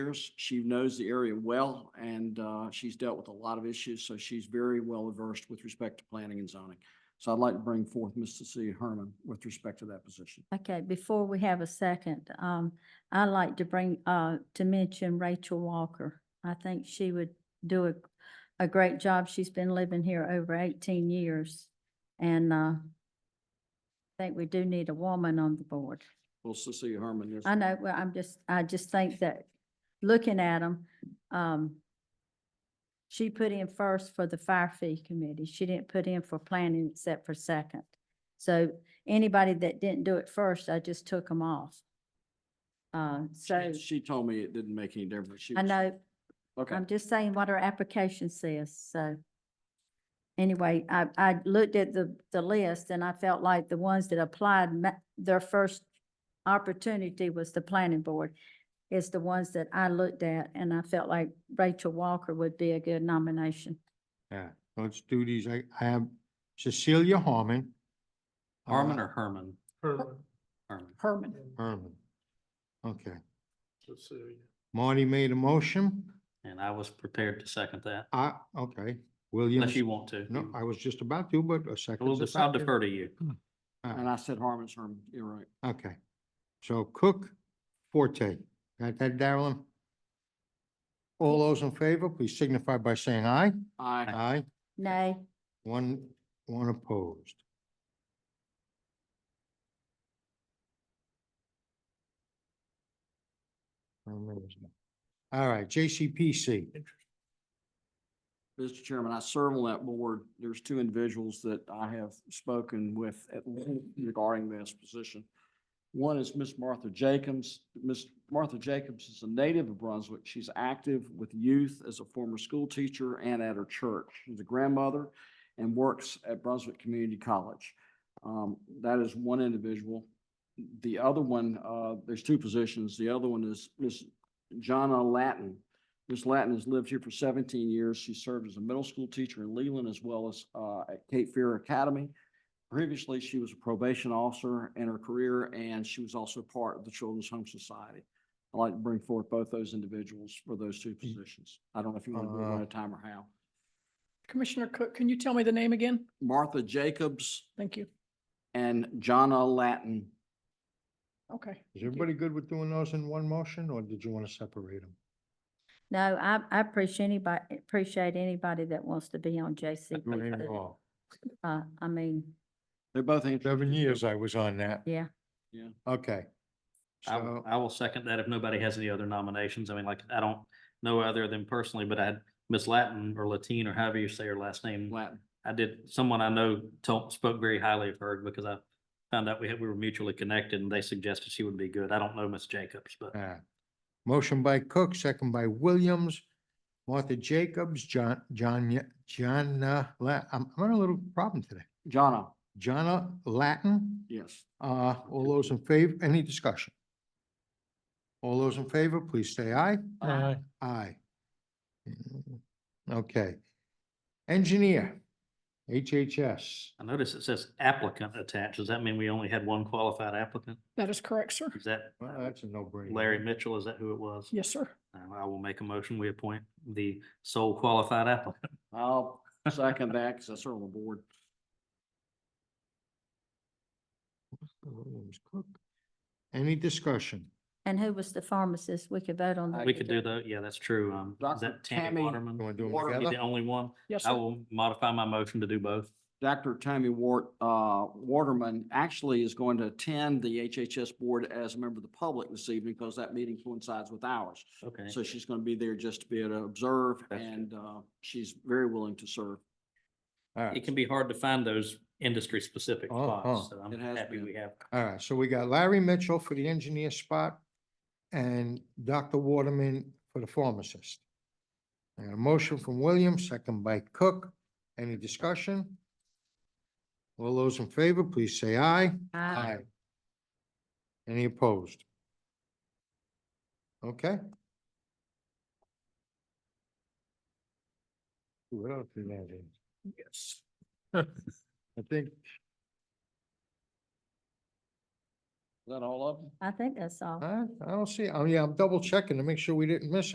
years. She knows the area well and uh, she's dealt with a lot of issues, so she's very well versed with respect to planning and zoning. So I'd like to bring forth Ms. Cecilia Herman with respect to that position. Okay, before we have a second, um, I'd like to bring, uh, to mention Rachel Walker. I think she would do a, a great job. She's been living here over eighteen years. And, uh, I think we do need a woman on the board. Well, Cecilia Herman is. I know, well, I'm just, I just think that, looking at them, um, she put in first for the fire fee committee. She didn't put in for planning except for second. So anybody that didn't do it first, I just took them off. Uh, so She- She told me it didn't make any difference. She I was- know, Okay, I'm just saying what our application says, so. Anyway, I, I looked at the, the list and I felt like the ones that applied, ma- their first opportunity was the planning board. Is the ones that I looked at and I felt like Rachel Walker would be a good nomination. Yeah, so it's duties. I, I have Cecilia Harmon. Harmon uh, or Herman? Herman, Herman. Herman. Herman. Okay. Cecilia. Marty made a motion. And I was prepared to second that, I, okay, Williams. unless you want to. No, I Mm-hmm. was just about to, but a second. We'll just, I'll defer to you. and I said Harmon's Herman, you're right. Okay. So Cook, Forte. Got that, Darrellin? All those in favor, please signify by saying aye. I, Aye. Nay, One, one opposed. Amazing. All right, JCPC. Mr. Chairman, I serve on that board. There's two individuals that I have spoken with at length regarding this position. One is Miss Martha Jacobs. Miss Martha Jacobs is a native of Brunswick. She's active with youth as a former school teacher and at her church. She's a grandmother and works at Brunswick Community College. Um, that is one individual. The other one, uh, there's two positions. The other one is Miss Jonna Latin. Ms. Latin has lived here for seventeen years. She served as a middle school teacher in Leland as well as uh, at Cape Fear Academy. Previously, she was a probation officer in her career, and she was also part of the Children's Home Society. I'd like to bring forth both those individuals for those two positions. I don't know if you want to do it one Uh, at a time or how. Commissioner Cook, can you tell me the name again? Martha Jacobs Thank you. and Jonna Latin. Okay. Is everybody good with doing those in one motion, or did you want to separate them? no, I, I appreciate anybody, appreciate anybody that wants to be on JCP. Uh, I mean, They're both, in- Seven years I was on that. yeah, Okay. I, w- So, I will second that if nobody has any other nominations. I mean, like, I don't know other than personally, but I had Miss Latin or Latine or however you say her last name. Latin. I did, someone I know told, spoke very highly of her because I found out we had, we were mutually connected and they suggested she would be good. I don't know Miss Jacobs, but uh, motion by Cook, second by Williams, Martha Jacobs, John, John, John, uh, La- I'm, I'm having a little problem today. Jonna, Jonna Latin? yes. Uh, all those in favor, any discussion? All those in favor, please say aye. Aye. Aye. Okay. Engineer, HHS. I noticed it says applicant attached. Does that mean we only had one qualified applicant? That is correct, sir. Is that Well, that's a no-brainer. Larry Mitchell? Is that who it was? Yes, sir. Uh, I will make a motion. We appoint the sole qualified applicant. I'll second that because I serve on the board. Williams Cook. Any discussion? and who was the pharmacist? We could vote on that. We could do that. Yeah, that's true. Um, Dr. is that Tammy Tammy Waterman? You wanna do 'em Waterman be together? The only one? Yes, I sir. will modify my motion to do both. Dr. Tommy Wart, uh, Waterman actually is going to attend the HHS board as a member of the public this evening because that meeting coincides with ours. Okay. So she's going to be there just to be able to observe That's good. and, uh, she's very willing to serve. All It right, can be hard to find those industry-specific Oh, spots, oh. so I'm It has happy been. we have. all right, so we got Larry Mitchell for the engineer spot and Dr. Waterman for the pharmacist. I got a motion from Williams, second by Cook. Any discussion? All those in favor, please say aye. Aye. Any opposed? Okay. What else is that in? Yes. I think that all of them? I think that's all. I, I don't see, oh yeah, I'm double checking to make sure we didn't miss